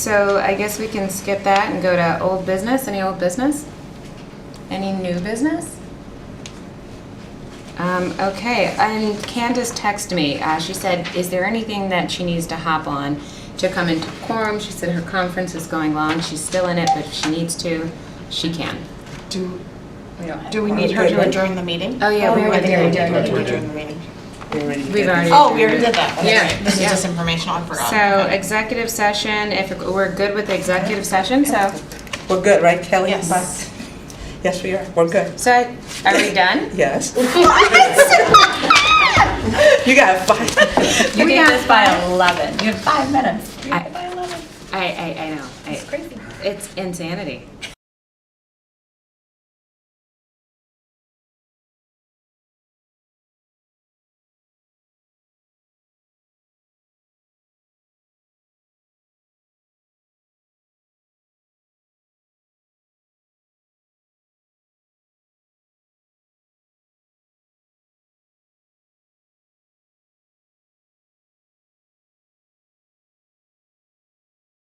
So I guess we can skip that and go to old business. Any old business? Any new business? Um, okay, and Candace texted me. Uh, she said, is there anything that she needs to hop on to come into quorum? She said her conference is going long. She's still in it, but if she needs to, she can. Do, We don't have do we need her to adjourn the meeting? Oh, yeah, we Oh, already yeah, did. yeah, yeah. We need to adjourn the meeting. We've already. Oh, we adjourned. already did that. That's Yeah, right. This is yeah. just informational, I forgot. So executive session, if we're good with the executive session, so, We're good, right, Kelly? Yes. Bye. Yes, we are. We're good. so I- are we done? Yes. You got five. You We need have this by 11. You have five minutes. You I- have by 11. I, I, I know. I- It's crazy. It's insanity.